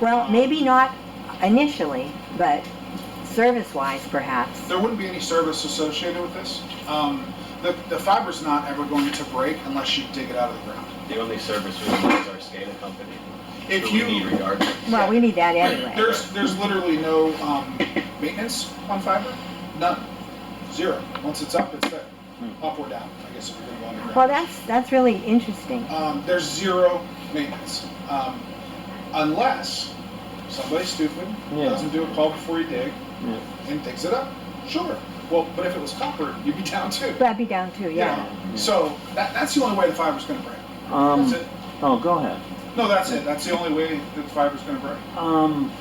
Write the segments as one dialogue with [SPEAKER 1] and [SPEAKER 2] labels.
[SPEAKER 1] Well, maybe not initially, but service-wise perhaps.
[SPEAKER 2] There wouldn't be any service associated with this. Um, the, the fiber's not ever going to break unless you dig it out of the ground.
[SPEAKER 3] The only service we need is our SCADA company.
[SPEAKER 2] If
[SPEAKER 3] who we need
[SPEAKER 2] you,
[SPEAKER 3] regardless.
[SPEAKER 1] Well, we need that anyway.
[SPEAKER 2] there's, there's literally no, um, maintenance on fiber, none, zero. Once it's up, it's there,
[SPEAKER 4] Hmm.
[SPEAKER 2] up or down, I guess if you're gonna go underground.
[SPEAKER 1] Well, that's, that's really interesting.
[SPEAKER 2] um, there's zero maintenance. Um, unless somebody stupid
[SPEAKER 4] Yeah.
[SPEAKER 2] doesn't do a call before you dig
[SPEAKER 4] Yeah.
[SPEAKER 2] and digs it up. Sure. Well, but if it was copper, you'd be down too.
[SPEAKER 1] But I'd be down too, yeah.
[SPEAKER 2] So that, that's the only way the fiber's going to break.
[SPEAKER 4] Um,
[SPEAKER 2] That's it.
[SPEAKER 4] oh, go ahead.
[SPEAKER 2] No, that's it. That's the only way that the fiber's going to break.
[SPEAKER 4] Um,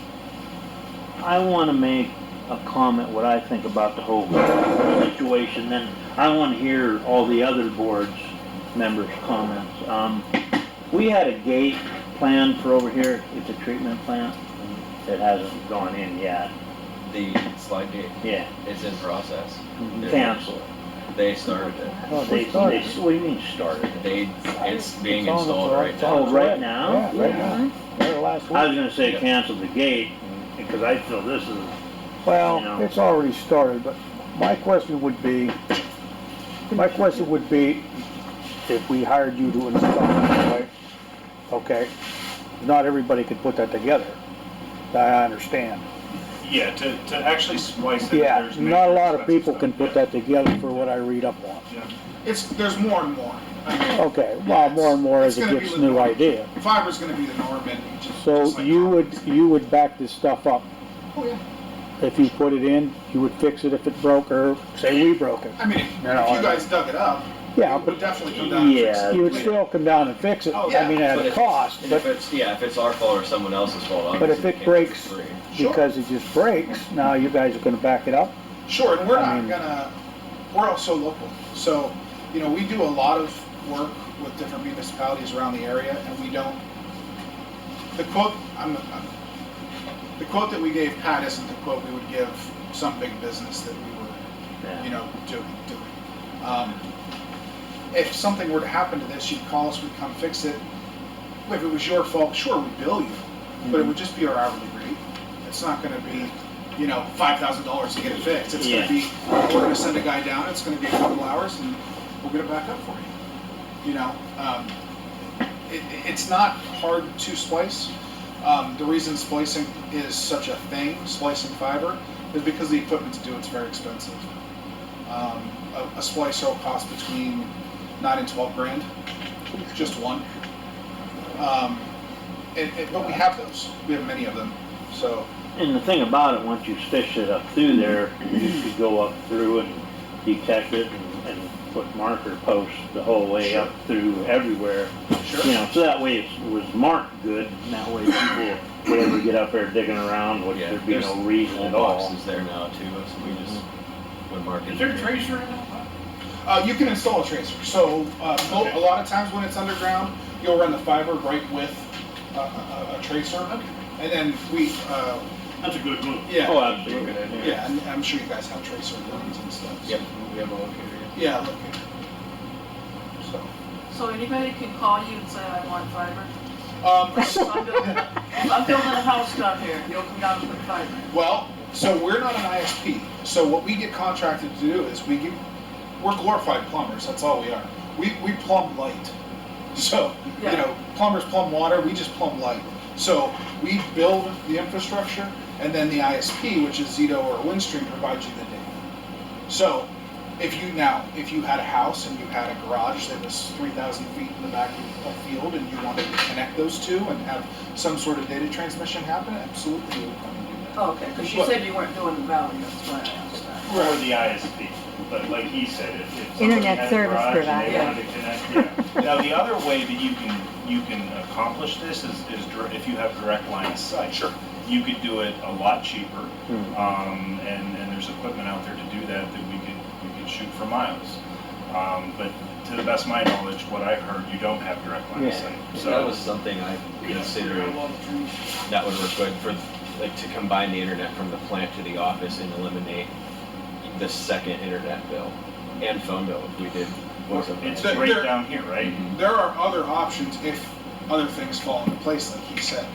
[SPEAKER 4] I want to make a comment what I think about the whole situation, then I want to hear all the other boards members' comments. Um, we had a gate planned for over here, it's a treatment plant, it hasn't gone in yet,
[SPEAKER 3] The slide gate
[SPEAKER 4] yeah,
[SPEAKER 3] is in process.
[SPEAKER 5] Mm-hmm.
[SPEAKER 4] cancel.
[SPEAKER 3] They started it.
[SPEAKER 5] No,
[SPEAKER 4] Oh, They,
[SPEAKER 5] they
[SPEAKER 4] they,
[SPEAKER 5] started.
[SPEAKER 4] what do you mean started?
[SPEAKER 3] They, it's being
[SPEAKER 5] It's on the
[SPEAKER 3] installed
[SPEAKER 5] floor.
[SPEAKER 3] right
[SPEAKER 4] Oh,
[SPEAKER 3] now.
[SPEAKER 4] right now?
[SPEAKER 5] Yeah, right now. They're last
[SPEAKER 4] I was
[SPEAKER 5] week.
[SPEAKER 4] gonna say cancel the gate, because I feel this is,
[SPEAKER 5] Well,
[SPEAKER 4] know.
[SPEAKER 5] it's already started, but my question would be, my question would be, if we hired you to install it, right? Okay, not everybody could put that together. I understand.
[SPEAKER 6] Yeah, to, to actually splice it.
[SPEAKER 5] Yeah,
[SPEAKER 6] there's
[SPEAKER 5] not a
[SPEAKER 6] major
[SPEAKER 5] lot of
[SPEAKER 6] expenses
[SPEAKER 5] people can
[SPEAKER 6] though.
[SPEAKER 5] put that together for what I read up on.
[SPEAKER 6] Yeah.
[SPEAKER 2] It's there's more and more. I mean,
[SPEAKER 5] Okay, well, more and more as it gets new idea.
[SPEAKER 2] fiber's going to be the norm, and just, just
[SPEAKER 5] So
[SPEAKER 2] like
[SPEAKER 5] you
[SPEAKER 2] copper.
[SPEAKER 5] would, you would back this stuff up
[SPEAKER 2] Oh, yeah.
[SPEAKER 5] if you put it in, you would fix it if it broke, or say we broke it.
[SPEAKER 2] I mean, if,
[SPEAKER 5] No, no,
[SPEAKER 2] if
[SPEAKER 5] I-
[SPEAKER 2] you guys dug it up,
[SPEAKER 5] Yeah,
[SPEAKER 2] it would
[SPEAKER 5] but
[SPEAKER 2] definitely come down. and fix
[SPEAKER 4] yeah.
[SPEAKER 5] you would still come down and fix it,
[SPEAKER 2] Oh,
[SPEAKER 5] I mean, at
[SPEAKER 3] But
[SPEAKER 5] a
[SPEAKER 3] if-
[SPEAKER 5] cost,
[SPEAKER 3] and
[SPEAKER 5] but
[SPEAKER 3] If it's, yeah, if it's our fault or someone else's fault,
[SPEAKER 5] But
[SPEAKER 3] obviously.
[SPEAKER 5] if
[SPEAKER 3] we
[SPEAKER 5] it
[SPEAKER 3] can't
[SPEAKER 5] breaks-
[SPEAKER 3] free.
[SPEAKER 2] it. Sure.
[SPEAKER 5] because it just breaks, now you guys are gonna back it up?
[SPEAKER 2] Sure, and we're
[SPEAKER 5] I
[SPEAKER 2] not
[SPEAKER 5] mean-
[SPEAKER 2] gonna. We're also local, so you know we do a lot of work with different municipalities around the area, and we don't. The quote, I'm, I'm, the quote that we gave Pat isn't the quote we would give some big business that we were, you
[SPEAKER 4] yeah,
[SPEAKER 2] know, do, doing. Um, if something were to happen to this, you'd call us, we'd come fix it. If it was your fault, sure, we'd bill you, but it would just be our hourly rate. It's not gonna be, you know, five thousand dollars to get it fixed. It's
[SPEAKER 4] Yeah.
[SPEAKER 2] gonna be, we're gonna send a guy down, it's gonna be a couple hours, and we'll get it back up for you. You know, um, it, it's not hard to splice. Um, the reason splicing is such a thing, splicing fiber, is because the equipment to do it's very expensive. Um, a, a splicer will cost between nine and twelve grand, just one. Um, it, it, but we have those. We have many of them. So
[SPEAKER 4] and the thing about it, once you fish it up through there, you could go up through and detect it and, and put marker posts the whole way up through everywhere.
[SPEAKER 2] sure.
[SPEAKER 4] You know, so that way it was marked good, and that way people would ever get up there digging around, would
[SPEAKER 3] Yeah,
[SPEAKER 4] there'd be
[SPEAKER 3] there's
[SPEAKER 4] no reason
[SPEAKER 3] Whole
[SPEAKER 4] at all.
[SPEAKER 3] boxes there now too, so we just, when Mark.
[SPEAKER 6] Is there a tracer in that?
[SPEAKER 2] Uh, you can install a tracer. So uh, mo-
[SPEAKER 6] Okay.
[SPEAKER 2] a lot of times when it's underground, you'll run the fiber right with a, a, a tracer, and then we, uh,
[SPEAKER 6] That's a good move.
[SPEAKER 2] yeah,
[SPEAKER 4] Oh, absolutely, yeah.
[SPEAKER 2] yeah. And I'm sure you guys have tracer lines and stuff. so-
[SPEAKER 3] Yep, we have a locator.
[SPEAKER 2] Yeah. Look So.
[SPEAKER 7] So anybody can call you and say, I want fiber?
[SPEAKER 2] Um, so-
[SPEAKER 7] I'm building, I'm building a house down here, you'll come down and put fiber.
[SPEAKER 2] Well, so we're not an ISP. So what we get contracted to do is we give, we're glorified plumbers. That's all we are. We, we plumb light. So, you
[SPEAKER 7] Yeah.
[SPEAKER 2] know, plumbers plumb water, we just plumb light. So we build the infrastructure and then the ISP, which is Zito or Windstream, provides you the data. So if you now, if you had a house and you had a garage that was 3,000 feet in the back of a field and you wanted to connect those two and have some sort of data transmission happen, absolutely we would come and do that.
[SPEAKER 7] Oh, okay, because you said you weren't doing the valley, that's why I asked that.
[SPEAKER 6] Or the ISP, but like he said, if, if. somebody
[SPEAKER 1] Internet
[SPEAKER 6] had a
[SPEAKER 1] service
[SPEAKER 6] garage and
[SPEAKER 1] provider.
[SPEAKER 6] they wanted to connect- yeah. Now, the other way that you can, you can accomplish this is, is dir- if you have direct line of sight. Sure. You could do it a lot cheaper, um, and, and there's equipment out there to do that that we could, we could shoot for miles. Um, but to the best of my knowledge, what I've heard, you don't have direct line of
[SPEAKER 4] Yeah.
[SPEAKER 6] sight.
[SPEAKER 3] So
[SPEAKER 6] So
[SPEAKER 3] that was something I considered, that would work good for, like, to combine the internet from the plant to the office and eliminate the second internet bill and phone bill if we did. both of them.
[SPEAKER 6] It's
[SPEAKER 2] There-
[SPEAKER 6] right
[SPEAKER 2] there-
[SPEAKER 6] down here, right?
[SPEAKER 2] There are other options if other things fall into place, like he said.